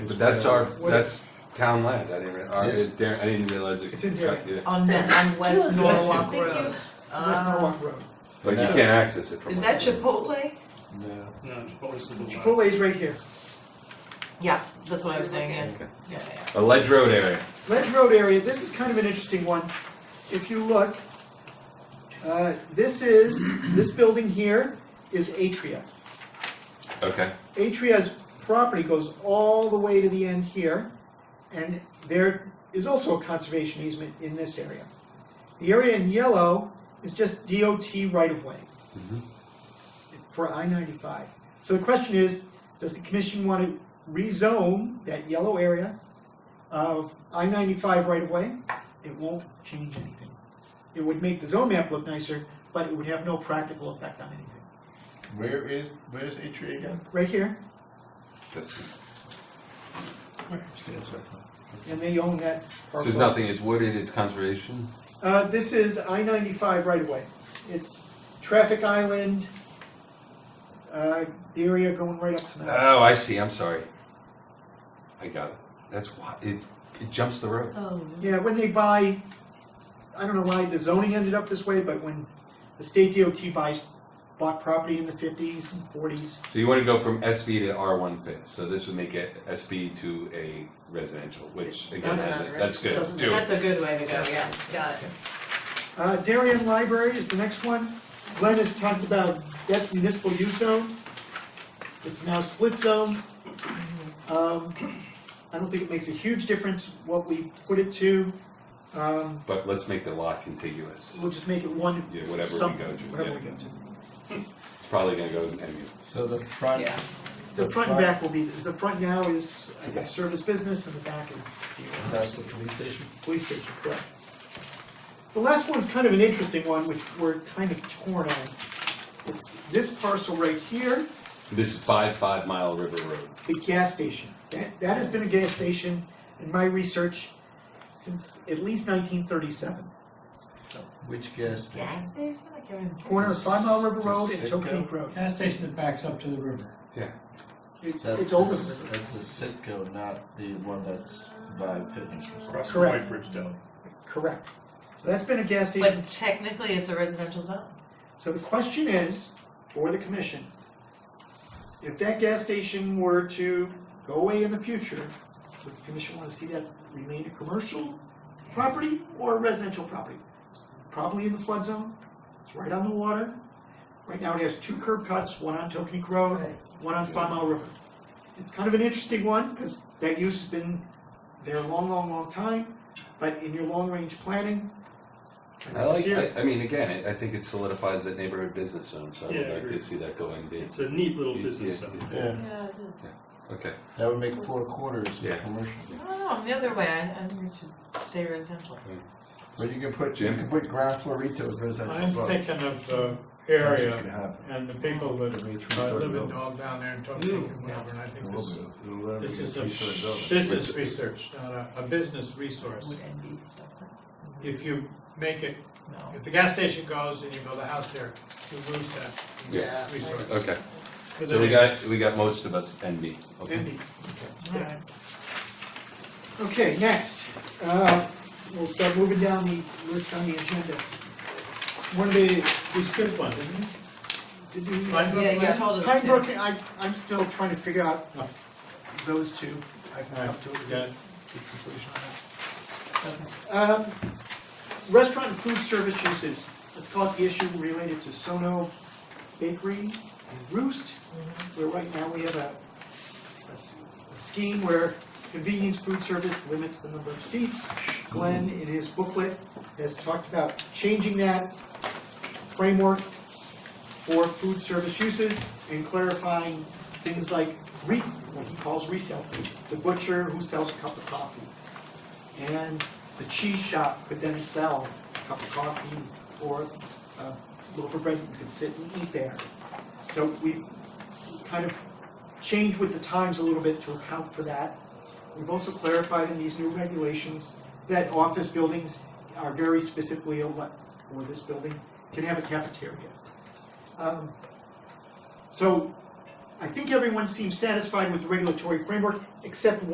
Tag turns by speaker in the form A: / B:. A: That's our,
B: What-
A: that's town land, I didn't, rea- our-
B: Yes.
A: it- Darren- I didn't realize it.
B: It's in Darien.
A: Yeah.
C: On, on West
B: Thank you.
C: Norwalk
D: Thank
C: Road.
D: you.
B: West
C: Ah.
B: Norwalk Road.
A: But you
B: No.
A: can't access it from.
C: Is that Chipotle?
B: No.
D: No, Chipotle's the blue one.
B: Chipotle's right here.
C: Yeah, that's what I was saying, yeah.
A: Okay.
C: yeah, yeah.
A: A ledge road area.
B: Ledge Road area, this is kind of an interesting one. If you look, uh, this is, this building here is Atria.
A: Okay.
B: Atria's property goes all the way to the end here, and there is also a conservation easement in this area. The area in yellow is just DOT right-of-way
A: Mhm.
B: for I-95. So the question is, does the commission want to rezone that yellow area of I-95 right-of-way? It won't change anything. It would make the zone map look nicer, but it would have no practical effect on anything.
E: Where is, where's Atria again?
B: Right here,
A: That's-
B: and they own that parcel.
A: There's nothing, it's wooded, it's conservation.
B: Uh, this is I ninety-five right away. It's traffic island, uh, the area going right up to that.
A: Oh, I see, I'm sorry. I got it. That's why, it, it jumps the road.
C: Oh.
B: Yeah, when they buy, I don't know why the zoning ended up this way, but when the state DOT buys, bought property in the fifties and forties,
A: So you wanna go from SB to R one fifth, so this would make it SB to a residential, which again,
C: Doesn't
A: has a-
C: matter.
A: that's good,
B: Doesn't
A: do it.
C: That's a good way to go, yeah, got it.
B: Uh, Darien Library is the next one. Glenn has talked about that's municipal use zone. It's now split zone. Um, I don't think it makes a huge difference what we put it to. Um,
A: But let's make the lot contiguous,
B: we'll just make it one,
A: yeah, whatever we
B: something,
A: go to,
B: whatever we
A: yeah.
B: go to.
A: It's probably gonna go to MU.
E: So the front,
C: Yeah.
B: The front and back will be, the front now is, I guess, service business and the back is the uh,
E: that's the police station?
B: police station, correct? The last one's kind of an interesting one, which we're kind of torn on. It's this parcel right here.
A: This is five, five mile river road.
B: the gas station. That, that has been a gas station in my research since at least nineteen thirty-seven.
E: Which gas station?
C: Gas station, I can't even.
B: Corner of Five Mile River Road and
E: Does Citgo-
B: Tokine Road.
F: Gas station that backs up to the river.
B: It's,
E: That's
B: it's
E: the-
B: older than river.
E: That's the Citgo, not the one that's Vibe Fitness.
D: Across from
B: Correct.
D: White Bridge Deli.
B: correct. So that's been a gas station.
C: But technically, it's a residential zone.
B: So the question is, for the commission, if that gas station were to go away in the future, would the commission wanna see that remain a commercial property or a residential property? Probably in the flood zone, it's right on the water. Right now it has two curb cuts, one on Tokenique Road, one on Five Mile River. It's kind of an interesting one, because that use has been there a long, long, long time, but in your long-range planning,
A: I like,
B: Yeah.
A: I, I mean, again, it- I think it solidifies that neighborhood business zone, so I
D: Yeah,
A: would
D: I
A: like
D: agree.
A: to see that go in bid.
D: It's a neat little
A: Yeah,
D: business
A: yeah,
D: zone.
E: Yeah,
C: Yeah, it is.
A: Okay,
E: that would make four quarters
A: Yeah.
E: of commercial.
C: I don't know, the other way, I, I think it should stay residential.
E: But you can put, you can put ground floor retail as residential.
G: I'm
E: above.
G: thinking of the
E: That's what's
G: area
E: gonna happen.
G: and the people
E: It'll
G: that
E: be a
G: uh,
E: three-story
G: live in
E: building.
G: dog down there and talk to and whatever, and I
E: It
G: think
E: will
G: this,
E: be. It'll literally
G: this
E: be a
G: is a
E: three-story building.
G: business research, not a, a business resource.
C: Would envy stuff
G: If you make it,
C: like, no.
G: if the gas station goes and you build a house there, you lose that
A: Yeah.
G: resource.
A: okay.
G: But
A: So we
G: then-
A: got, we got most of us NB. Okay.
B: NB.
C: All right.
B: Okay, next, uh, we'll start moving down the list on the agenda. One of the,
G: We skipped one, didn't we?
B: did we-
G: Pine Brook
C: Yeah, you
G: West?
C: told us
B: Pine
C: to.
B: Brook, I, I'm still trying to figure out
G: Oh.
B: those two. I've
G: All
B: come
G: right,
B: to a
G: got it.
B: good conclusion on that. Um, Restaurant and food service uses, let's call it the issue related to Sono Bakery and Roost, where right now we have a, a s- a scheme where convenience food service limits the number of seats. Glenn, in his booklet, has talked about changing that framework for food service uses and clarifying things like re, what he calls retail food. The butcher who sells a cup of coffee. And the cheese shop could then sell a cup of coffee or a loaf of bread that you could sit and eat there. So we've kind of changed with the times a little bit to account for that. We've also clarified in these new regulations that office buildings are very specifically, ele- or this building, can have a cafeteria. Um, So I think everyone seems satisfied with the regulatory framework, except